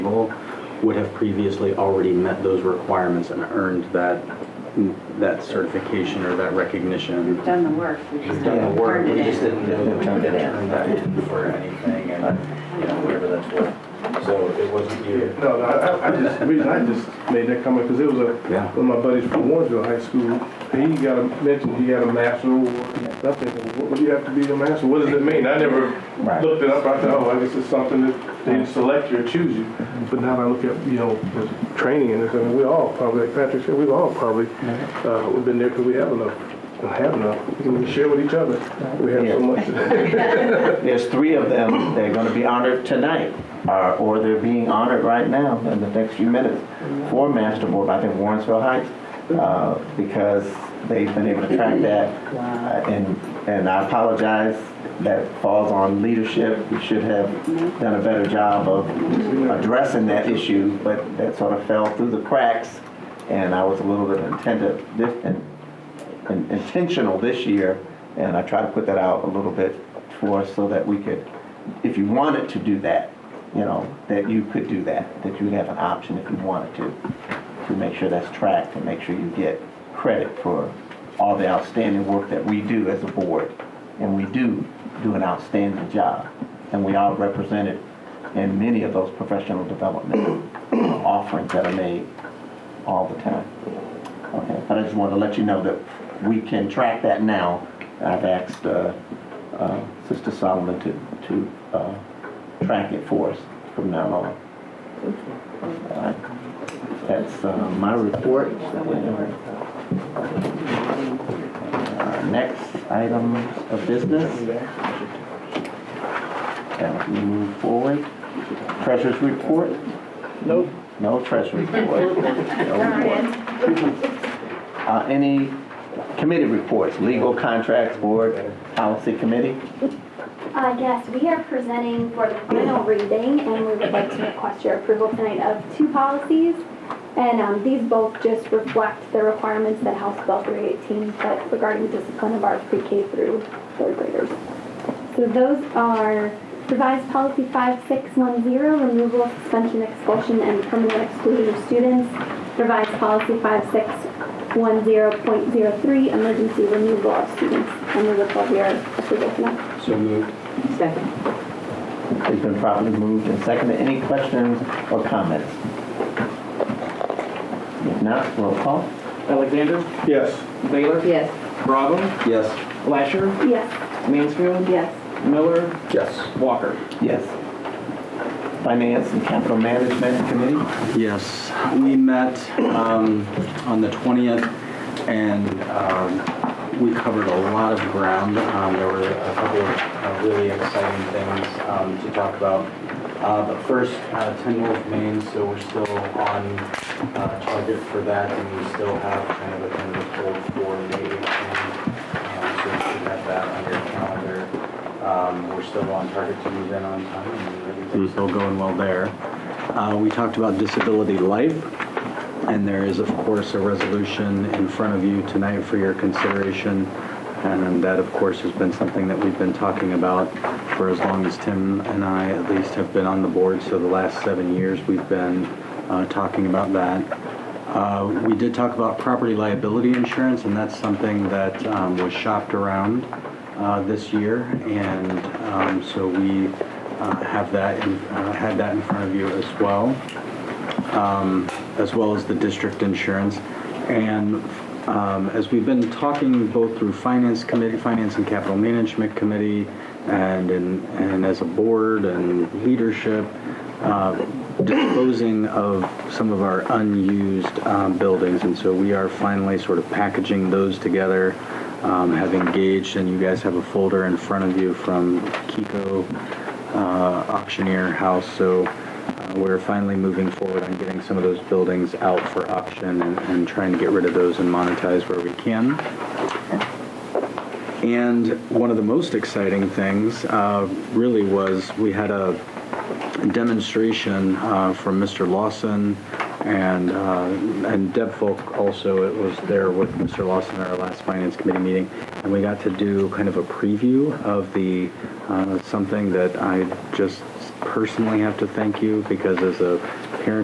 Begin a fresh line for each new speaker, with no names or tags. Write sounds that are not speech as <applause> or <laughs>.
would have previously already met those requirements and earned that, that certification or that recognition.
Done the work. we just
We've done the work,
turned
we
it
just
in.
didn't know that we were gonna turn that in for anything, and, you know, whatever that's worth. So it wasn't you.
No, no, I, I just, the reason I just made that comment, because it was a,
Yeah.
one of my buddies from Warrensville High School, he got a, mentioned he got a master, and I'm thinking, what would you have to be the master? What does it mean? I never
Right.
looked it up, I thought, oh, I guess it's something that they select you or choose you. But now that I look at, you know, the training and this, I mean, we all probably, like Patrick said, we've all probably, uh, we've been there because we have enough, don't have enough, we can share with each other, we have so much.
There's three of them, they're gonna be honored tonight, uh, or they're being honored right now in the next few minutes. For Master Board, I think Warrensville Heights, uh, because they've been able to track that. Uh, And, and I apologize, that falls on leadership, we should have done a better job of addressing that issue, but that sort of fell through the cracks, and I was a little bit intended, in- intentional this year, and I try to put that out a little bit for us so that we could, if you wanted to do that, you know, that you could do that, that you have an option if you wanted to, to make sure that's tracked and make sure you get credit for all the outstanding work that we do as a board. And we do do an outstanding job, and we are represented in many of those professional development <coughs> offerings that are made all the time. Okay, but I just wanted to let you know that we can track that now. I've asked uh, uh, Sister Solomon to, to uh, track it for us from now on. All right. That's uh, my report. Uh, Next item of business, as we move forward, treasurer's report? Nope. No treasurer's report. No report. Uh, Any committee reports, legal contracts, board, policy committee?
Uh, yes, we are presenting for the final reading, and we would like to request your approval tonight of two policies. And um, these both just reflect the requirements that House Bill 318 sets regarding discipline of our pre-K through third graders. So those are revised policy 5610, removal, suspension, expulsion, and permanent exclusion of students. Revised policy 5610.03, emergency removal of students. And we would love your approval tonight.
So moved.
Second.
It's been properly moved and seconded. Any questions or comments? If not, roll call.
Alexander,
<laughs> Yes,
Baylor,
Yes.
Bravo,
Yes.
Lasher,
Yes.
Mansfield,
Yes.
Miller,
Yes.
Walker.
Yes. Finance and Capital Management Committee?
Yes. We met um, on the 20th and um, we covered a lot of ground. Um, There were a couple of uh, really exciting things um, to talk about. Uh, But first, uh, 10 Wolf Main, so we're still on uh, target for that and we still have kind of a tentative hold for May 18th. Um, So you should have that on your calendar. Um, We're still on target to move in on time and everything's still going well there. Uh, We talked about disability life, and there is, of course, a resolution in front of you tonight for your consideration. And that, of course, has been something that we've been talking about for as long as Tim and I at least have been on the board. So the last seven years, we've been uh, talking about that. Uh, We did talk about property liability insurance, and that's something that um, was shopped around uh, this year. And um, so we uh, have that, in- uh, had that in front of you as well as well as the district insurance. And um, as we've been talking both through finance committee, finance and capital management committee, and, in- and as a board and leadership, uh, disposing of some of our unused um, buildings. And so we are finally sort of packaging those together, um, have engaged, and you guys have a folder in front of you from Kiko uh, auctioneer house. So uh, We're finally moving forward on getting some of those buildings out for auction and, and trying to get rid of those and monetize where we can. And one of the most exciting things uh, really was we had a demonstration uh, from Mr. Lawson and uh, and Deb Folk also. It was there with Mr. Lawson at our last finance committee meeting, and we got to do kind of a preview of the uh, something that I just personally have to thank you because as a